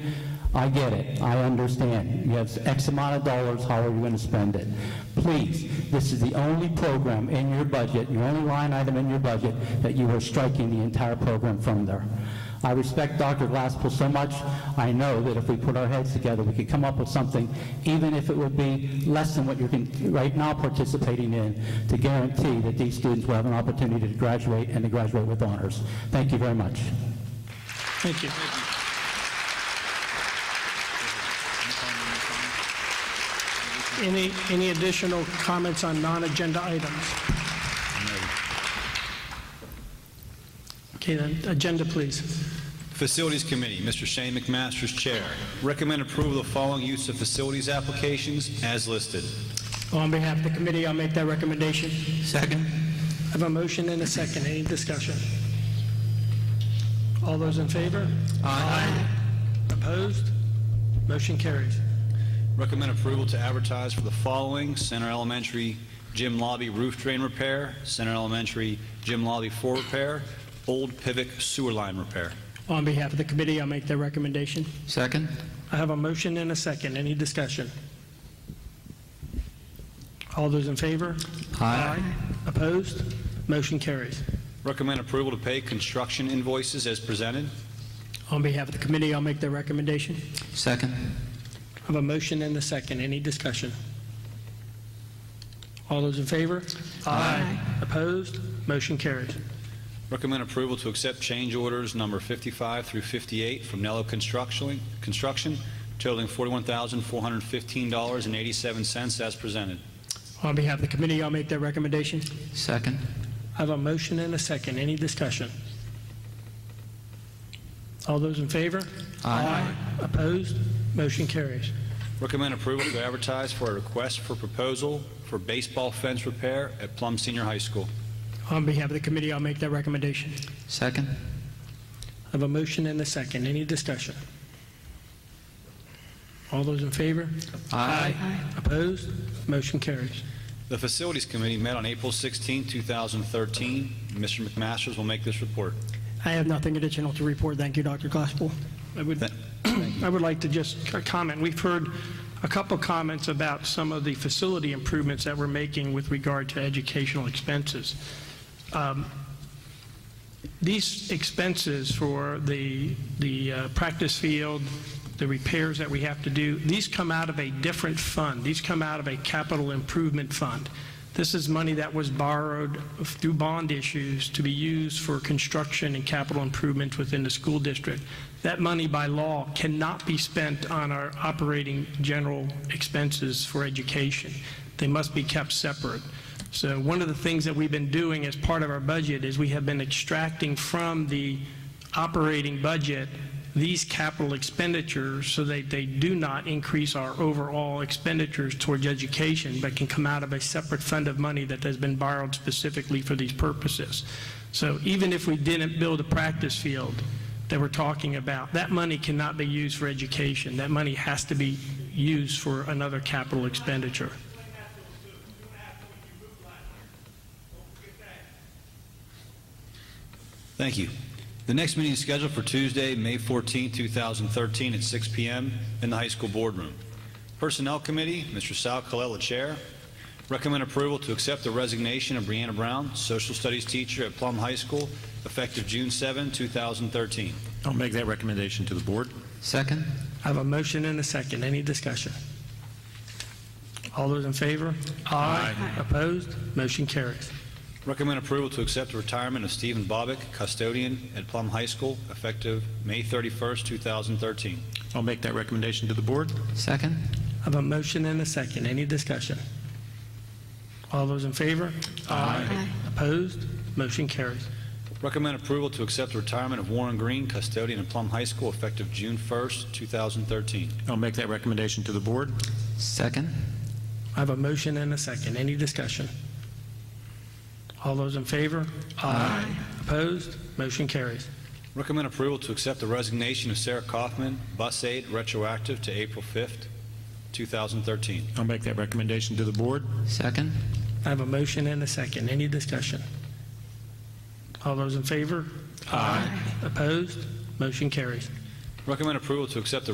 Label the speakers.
Speaker 1: I get it, I understand. You have X amount of dollars, how are you going to spend it? Please, this is the only program in your budget, your only line item in your budget, that you are striking the entire program from there. I respect Dr. Glasspool so much, I know that if we put our heads together, we could come up with something, even if it would be less than what you're con- right now participating in, to guarantee that these students will have an opportunity to graduate and to graduate with honors. Thank you very much.
Speaker 2: Thank you. Any, any additional comments on non-agenda items? Okay, then, agenda, please.
Speaker 3: Facilities Committee, Mr. Shane McMaster's chair. Recommend approval of the following use of facilities applications as listed.
Speaker 2: Oh, On behalf of the committee, I'll make that recommendation.
Speaker 4: Second.
Speaker 2: I have a motion and a second. Any discussion? All those in favor? Aye. Opposed? Motion carries.
Speaker 3: Recommend approval to advertise for the following: Center Elementary Gym Lobby Roof Drain Repair, Center Elementary Gym Lobby Floor Repair, Old Pivot Sewer Line Repair.
Speaker 2: On behalf of the committee, I'll make that recommendation.
Speaker 4: Second.
Speaker 2: I have a motion and a second. Any discussion? All those in favor? Opposed? Motion carries.
Speaker 3: Recommend approval to pay construction invoices as presented.
Speaker 2: On behalf of the committee, I'll make the recommendation.
Speaker 4: Second.
Speaker 2: I have a motion and a second. Any discussion? All those in favor? Aye. Opposed? Motion carries.
Speaker 3: Recommend approval to accept change orders number 55 through 58 from Nello Construction Construction totaling $41,415.87 as presented.
Speaker 2: On behalf of the committee, I'll make that recommendation.
Speaker 4: Second.
Speaker 2: I have a motion and a second. Any discussion? All those in favor? Opposed? Motion carries.
Speaker 3: Recommend approval to advertise for a request for proposal for baseball fence repair at Plum Senior High School.
Speaker 2: On behalf of the committee, I'll make that recommendation.
Speaker 4: Second.
Speaker 2: I have a motion and a second. Any discussion? All those in favor? Opposed? Motion carries.
Speaker 3: The Facilities Committee met on April 16, 2013. Mr. McMasters will make this report.
Speaker 2: I have nothing additional to report. Thank you, Dr. Glasspool. I would, I would like to just c- comment. We've heard a couple comments about some of the facility improvements that we're making with regard to educational expenses. Um, These expenses for the, the uh, practice field, the repairs that we have to do, these come out of a different fund. These come out of a capital improvement fund. This is money that was borrowed through bond issues to be used for construction and capital improvements within the school district. That money by law cannot be spent on our operating general expenses for education. They must be kept separate. So one of the things that we've been doing as part of our budget is we have been extracting from the operating budget these capital expenditures so that they do not increase our overall expenditures towards education, but can come out of a separate fund of money that has been borrowed specifically for these purposes. So even if we didn't build a practice field that we're talking about, that money cannot be used for education. That money has to be used for another capital expenditure.
Speaker 3: Thank you. The next meeting is scheduled for Tuesday, May 14, 2013, at 6 p.m. in the high school boardroom. Personnel Committee, Mr. Sal Colella, Chair. Recommend approval to accept the resignation of Brianna Brown, Social Studies teacher at Plum High School, effective June 7, 2013.
Speaker 5: I'll make that recommendation to the board.
Speaker 4: Second.
Speaker 2: I have a motion and a second. Any discussion? All those in favor? Aye. Opposed? Motion carries.
Speaker 3: Recommend approval to accept the retirement of Stephen Bobick, custodian at Plum High School, effective May 31, 2013.
Speaker 5: I'll make that recommendation to the board.
Speaker 4: Second.
Speaker 2: I have a motion and a second. Any discussion? All those in favor? Aye. Opposed? Motion carries.
Speaker 3: Recommend approval to accept the retirement of Warren Green, custodian at Plum High School, effective June 1, 2013.
Speaker 5: I'll make that recommendation to the board.
Speaker 4: Second.
Speaker 2: I have a motion and a second. Any discussion? All those in favor? Aye. Opposed? Motion carries.
Speaker 3: Recommend approval to accept the resignation of Sarah Kaufman, bus aide, retroactive to April 5, 2013.
Speaker 5: I'll make that recommendation to the board.
Speaker 4: Second.
Speaker 2: I have a motion and a second. Any discussion? All those in favor? Aye. Opposed? Motion carries.
Speaker 3: Recommend approval to accept the